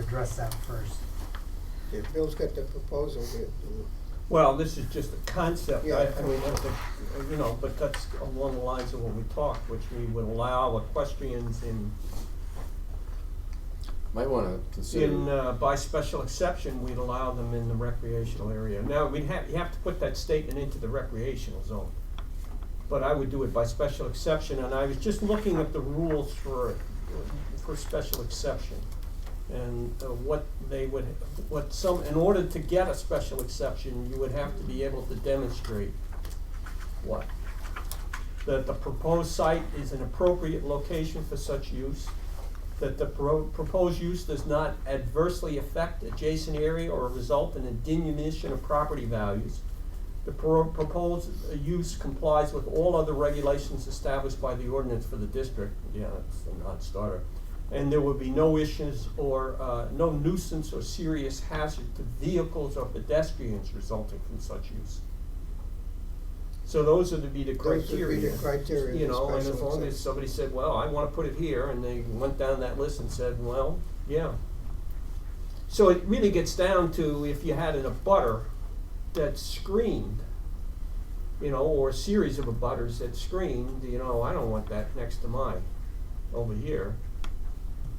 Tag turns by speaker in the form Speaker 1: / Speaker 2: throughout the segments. Speaker 1: address that first.
Speaker 2: Yeah, Bill's got the proposal here.
Speaker 3: Well, this is just a concept, I,
Speaker 2: Yeah.
Speaker 3: I mean, that's a, you know, but that's along the lines of what we talked, which we would allow equestrians in,
Speaker 4: Might wanna consider.
Speaker 3: in, uh, by special exception, we'd allow them in the recreational area. Now, we'd have, you have to put that statement into the recreational zone, but I would do it by special exception, and I was just looking at the rules for, for special exception. And uh, what they would, what some, in order to get a special exception, you would have to be able to demonstrate what? That the proposed site is an appropriate location for such use, that the pro- proposed use does not adversely affect adjacent area or result in a diminution of property values. The pro- proposed uh, use complies with all other regulations established by the ordinance for the district, yeah, that's a non-starter. And there will be no issues or, uh, no nuisance or serious hazard to vehicles or pedestrians resulting from such use. So those are to be the
Speaker 2: Those would be the
Speaker 3: criteria.
Speaker 2: criteria of
Speaker 3: You
Speaker 2: the
Speaker 3: know, and
Speaker 2: special
Speaker 3: as long as
Speaker 2: exception.
Speaker 3: somebody said, well, I wanna put it here, and they went down that list and said, well, yeah. So it really gets down to if you had an abutter that screamed, you know, or a series of abutters that screamed, you know, I don't want that next to mine over here.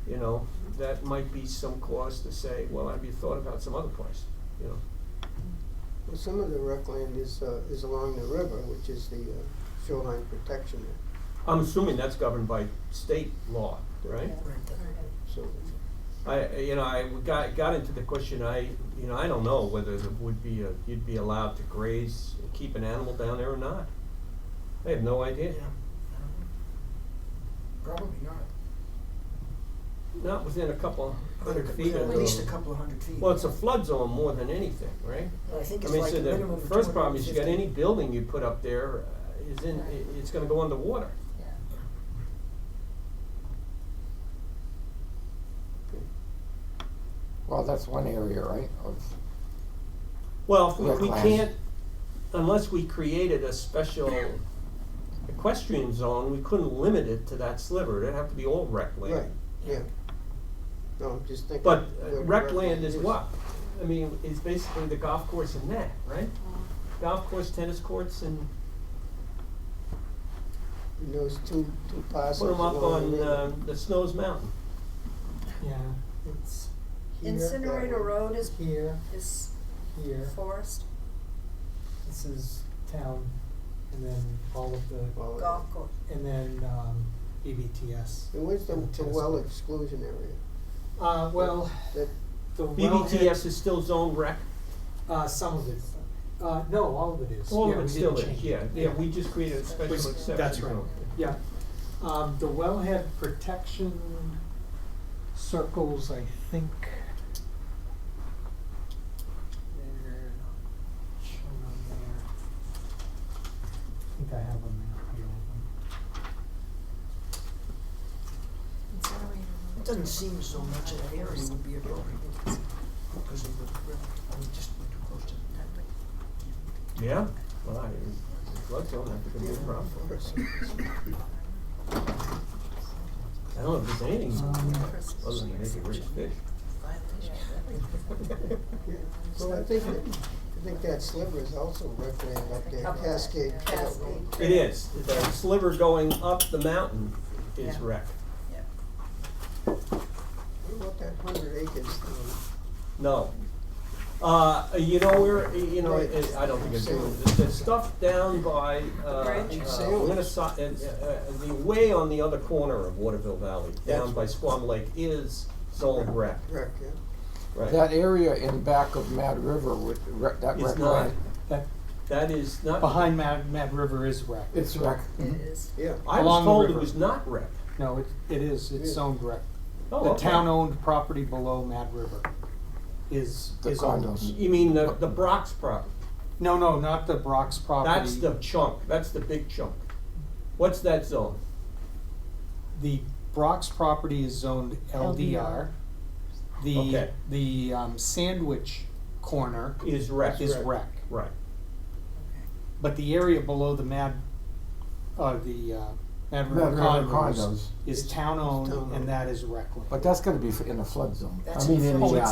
Speaker 3: You know, that might be some cause to say, well, have you thought about some other place, you know?
Speaker 2: Well, some of the rec land is, uh, is along the river, which is the uh, shoreline protection act,
Speaker 3: I'm assuming that's governed by state law, right?
Speaker 2: so.
Speaker 3: I, you know, I got, got into the question, I, you know, I don't know whether it would be, a- you'd be allowed to graze, keep an animal down there or not. I have no idea,
Speaker 5: Probably not.
Speaker 3: not within a couple hundred feet
Speaker 5: At
Speaker 3: of the.
Speaker 5: least a couple of hundred feet.
Speaker 3: Well, it's a flood zone more than anything, right?
Speaker 5: I think
Speaker 3: I
Speaker 5: it's
Speaker 3: mean,
Speaker 5: like a
Speaker 3: so
Speaker 5: minimum
Speaker 3: the
Speaker 5: of
Speaker 3: first problem is you got
Speaker 5: 250.
Speaker 3: any building you put up there uh, is in, i- it's gonna go underwater.
Speaker 4: Well, that's one area, right, of,
Speaker 3: Well, if we,
Speaker 4: Or
Speaker 3: we
Speaker 4: class.
Speaker 3: can't, unless we created a special equestrian zone, we couldn't limit it to that sliver, it'd have to be all rec land.
Speaker 2: Right, yeah. No, I'm just thinking.
Speaker 3: But
Speaker 2: where
Speaker 3: uh,
Speaker 2: the
Speaker 3: rec land is
Speaker 2: is.
Speaker 3: what? I mean, it's basically the golf course and that, right? Golf course, tennis courts, and
Speaker 2: And those two, two
Speaker 3: put
Speaker 2: parcels
Speaker 3: them up
Speaker 2: along the
Speaker 3: on,
Speaker 2: river.
Speaker 3: uh, the Snows Mountain.
Speaker 1: Yeah, it's here.
Speaker 6: Incinerator Road is,
Speaker 1: Here,
Speaker 6: is
Speaker 1: here,
Speaker 6: forest,
Speaker 1: this is town, and then all of the,
Speaker 2: Well,
Speaker 6: golf course.
Speaker 1: and then, um, BBTS.
Speaker 2: And where's the,
Speaker 1: and
Speaker 2: the
Speaker 1: tennis
Speaker 2: well
Speaker 1: court.
Speaker 2: exclusion area?
Speaker 1: Uh, well,
Speaker 2: That,
Speaker 1: the
Speaker 3: BBTS
Speaker 1: wellhead,
Speaker 3: is still zone rec,
Speaker 1: uh, some of it, uh, no, all of it is, yeah,
Speaker 3: all
Speaker 1: we
Speaker 3: of
Speaker 1: didn't
Speaker 3: it still is,
Speaker 1: change it.
Speaker 3: yeah, yeah, we just created a special
Speaker 1: Which-
Speaker 3: exception.
Speaker 1: that's right.
Speaker 3: zone.
Speaker 1: Yeah, um, the wellhead protection circles, I think. They're not shown on there. I think I have a map here of
Speaker 5: It doesn't seem as though much of that area would be appropriate. Because of the, river. I mean, just we're too close to the town.
Speaker 3: Yeah, well, I, the flood zone, I think it'd be a problem. I don't know if there's anything
Speaker 1: them. Um,
Speaker 3: other than maybe rich fish.
Speaker 2: so I think, that- I think that sliver is also rec land up there,
Speaker 6: Up there,
Speaker 2: Cascade
Speaker 6: yeah.
Speaker 2: Trail.
Speaker 3: It
Speaker 6: Cascade.
Speaker 3: is, the sliver going up the mountain is
Speaker 6: Yeah.
Speaker 3: rec.
Speaker 2: What about that hundred acres um, thing?
Speaker 3: No. Uh, you know, we're, you know, it, I don't think it's, the, the stuff down by, uh, uh,
Speaker 6: bridge?
Speaker 3: Winniso- uh, uh, the way on the other corner of Waterville Valley, down
Speaker 2: That's-
Speaker 3: by Squam Lake, is zoned rec,
Speaker 2: Rec, yeah.
Speaker 3: right?
Speaker 4: that area in back of Mad River with, rec- that
Speaker 3: It's
Speaker 4: rec
Speaker 3: not.
Speaker 4: land.
Speaker 1: that,
Speaker 3: That is not.
Speaker 1: behind Mad, Mad River is rec.
Speaker 4: It's rec.
Speaker 6: It is.
Speaker 2: Yeah.
Speaker 3: I was
Speaker 1: along the
Speaker 3: told it
Speaker 1: river.
Speaker 3: was not rec.
Speaker 1: No, it, it is, it's
Speaker 2: Yes.
Speaker 1: owned rec.
Speaker 3: Oh,
Speaker 1: The
Speaker 3: okay.
Speaker 1: town-owned property below Mad River is,
Speaker 4: The
Speaker 1: is owned.
Speaker 4: condos.
Speaker 3: You mean the, the Brock's property?
Speaker 1: No, no, not the Brock's property.
Speaker 3: That's the chunk, that's the big chunk. What's that zone?
Speaker 1: The Brock's property is zoned LDR. The,
Speaker 3: Okay.
Speaker 1: the um, Sandwich corner
Speaker 3: Is rec.
Speaker 1: is rec.
Speaker 3: Right.
Speaker 1: But the area below the Mad, uh, the, uh, Mad
Speaker 4: Mad
Speaker 1: River
Speaker 4: River
Speaker 1: Condos
Speaker 4: condos,
Speaker 1: is
Speaker 2: It's town-owned.
Speaker 1: town-owned, and that is rec land.
Speaker 4: but that's gonna be in a flood zone. I
Speaker 6: That's in
Speaker 4: mean,
Speaker 6: a
Speaker 4: in
Speaker 6: flood
Speaker 4: the,
Speaker 6: zone.
Speaker 4: uh,